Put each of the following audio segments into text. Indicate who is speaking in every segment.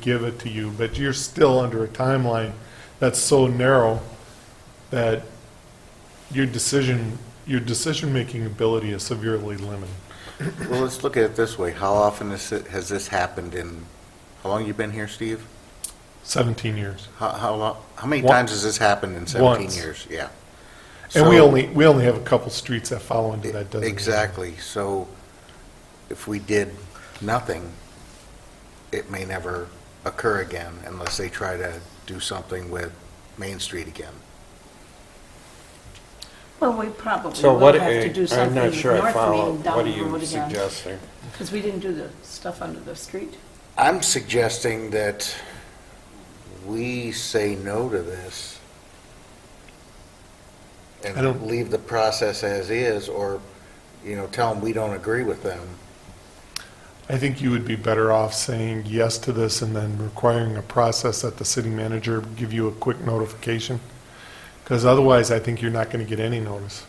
Speaker 1: give it to you, but you're still under a timeline that's so narrow that your decision, your decision-making ability is severely limited.
Speaker 2: Well, let's look at it this way. How often has it- has this happened in, how long you been here, Steve?
Speaker 1: 17 years.
Speaker 2: How, how, lo- how many
Speaker 1: Once.
Speaker 2: times has this happened in 17
Speaker 1: Once.
Speaker 2: years? Yeah.
Speaker 1: And we
Speaker 2: So-
Speaker 1: only, we only have a couple streets that fall into that designated.
Speaker 2: Exactly. So if we did nothing, it may never occur again unless they try to do something with Main Street again.
Speaker 3: Well, we probably
Speaker 4: So
Speaker 3: will
Speaker 4: what,
Speaker 3: have to do
Speaker 4: I'm
Speaker 3: something
Speaker 4: not
Speaker 3: with
Speaker 4: sure I
Speaker 3: North
Speaker 4: follow,
Speaker 3: Main
Speaker 4: what
Speaker 3: down
Speaker 4: are
Speaker 3: the road
Speaker 4: you
Speaker 3: again.
Speaker 4: suggesting?
Speaker 3: Because we didn't do the stuff under the street.
Speaker 2: I'm suggesting that we say no to this
Speaker 1: I
Speaker 2: and
Speaker 1: don't-
Speaker 2: leave the process as is, or, you know, tell them we don't agree with them.
Speaker 1: I think you would be better off saying yes to this and then requiring a process that the city manager give you a quick notification. Because otherwise, I think you're not going to get any notice.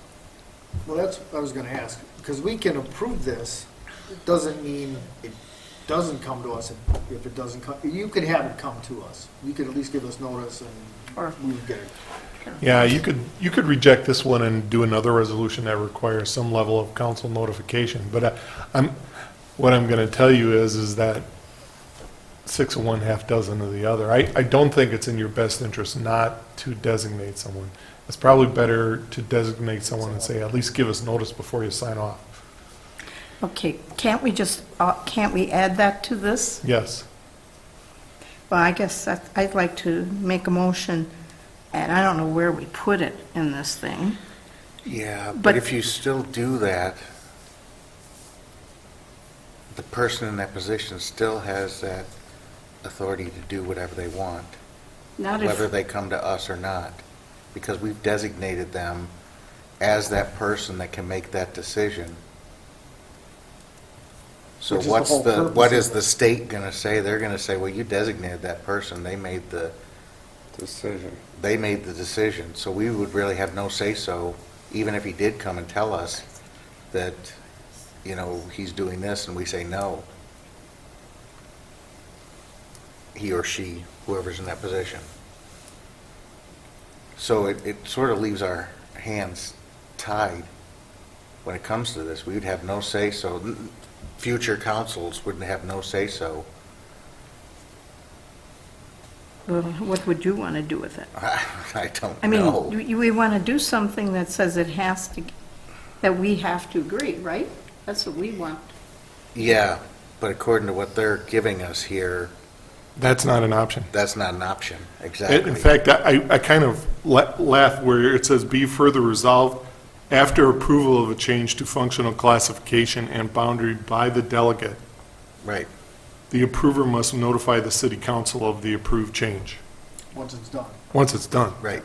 Speaker 5: Well, that's what I was gonna ask, because we can approve this, it doesn't mean it doesn't come to us if- if it doesn't come, you could have it come to us. You could at least give us notice
Speaker 3: Or-
Speaker 5: and we would get it.
Speaker 1: Yeah, you could, you could reject this one and do another resolution that requires some level of council notification. But I- I'm, what I'm going to tell you is, is that six of one, half dozen of the other. I, I don't think it's in your best interest not to designate someone. It's probably better to designate someone and say, at least give us notice before you sign off.
Speaker 3: Okay, can't we just, uh, can't we add that to this?
Speaker 1: Yes.
Speaker 3: Well, I guess that- I'd like to make a motion, and I don't know where we put it in this thing.
Speaker 2: Yeah,
Speaker 3: But-
Speaker 2: but if you still do that, the person in that position still has that authority to do whatever they want,
Speaker 3: Not
Speaker 2: whether
Speaker 3: if,
Speaker 2: they come to us or not, because we've designated them as that person that can make that decision. So
Speaker 5: Which is the
Speaker 2: what's
Speaker 5: whole
Speaker 2: the,
Speaker 5: purpose
Speaker 2: what
Speaker 5: of
Speaker 2: is
Speaker 5: it.
Speaker 2: the state going to say? They're going to say, well, you designated that person, they made the,
Speaker 4: Decision.
Speaker 2: they made the decision, so we would really have no say-so, even if he did come and tell us that, you know, he's doing this, and we say no. He or she, whoever's in that position. So it, it sort of leaves our hands tied when it comes to this. We would have no say-so. N- Future councils wouldn't have no say-so.
Speaker 3: well, what would you want to do with it?
Speaker 2: I don't know.
Speaker 3: I mean, you- you- we want to do something that says it has to, that we have to agree, right? That's what we want.
Speaker 2: Yeah, but according to what they're giving us here,
Speaker 1: That's not an option.
Speaker 2: that's not an option, exactly.
Speaker 1: In fact, I, I kind of la- laugh where it says, "Be further resolved, after approval of a change to functional classification and boundary by the delegate,
Speaker 2: Right,
Speaker 1: the approver must notify the city council of the approved change,"
Speaker 5: once it's done.
Speaker 1: once it's done.
Speaker 2: right.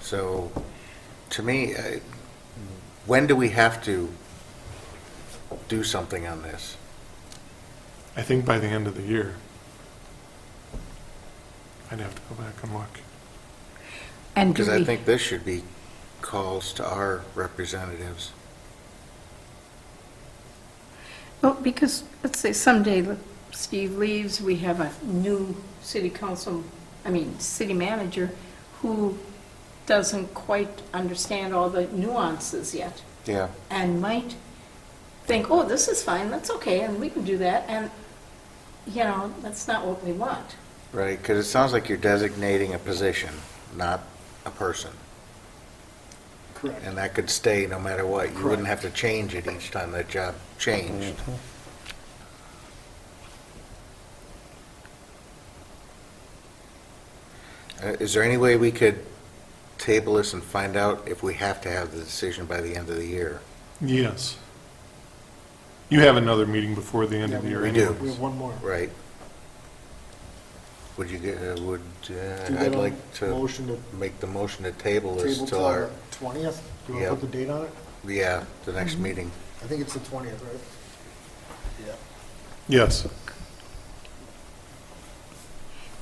Speaker 2: So, to me, I- when do we have to do something on this?
Speaker 1: I think by the end of the year. I'd have to go back and look.
Speaker 3: And do
Speaker 2: Because I
Speaker 3: we,
Speaker 2: think this should be calls to our representatives.
Speaker 3: well, Oh, because, let's say someday look, Steve leaves, we have a new city council, I mean, city manager, who doesn't quite understand all the nuances yet.
Speaker 2: Yeah.
Speaker 3: and might think, oh, this is fine, that's okay, and we can do that, and, you know, that's not what we want.
Speaker 2: Right, because it sounds like you're designating a position, not a person.
Speaker 5: Correct.
Speaker 2: And that could stay no matter what. You wouldn't have to change it each time that job changed.
Speaker 5: Mm-hmm.
Speaker 2: Uh, Is there any way we could table this and find out if we have to have the decision by the end of the year?
Speaker 1: Yes. You have another meeting before the end of the
Speaker 5: Yeah,
Speaker 1: year
Speaker 2: we
Speaker 1: anyways.
Speaker 2: do.
Speaker 5: We have one more.
Speaker 2: Right? Would you, get- uh, would,
Speaker 5: Do you
Speaker 2: uh,
Speaker 5: get
Speaker 2: I'd
Speaker 5: a
Speaker 2: like to
Speaker 5: Motion to
Speaker 2: make the motion to table this
Speaker 5: table
Speaker 2: till
Speaker 5: till
Speaker 2: our,
Speaker 5: the twentieth? Do you
Speaker 2: Yeah.
Speaker 5: want to put the date on it?
Speaker 2: yeah, the next
Speaker 5: Mm-hmm.
Speaker 2: meeting.
Speaker 5: I think it's the twentieth, right? Yeah.
Speaker 1: Yes.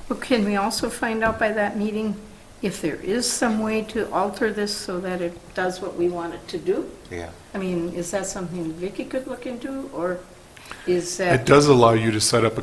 Speaker 3: But can we also find out by that meeting if there is some way to alter this so that it does what we want it to do?
Speaker 2: Yeah.
Speaker 3: I mean, is that something Vicky could look into, or is that?
Speaker 1: It does allow you to set up a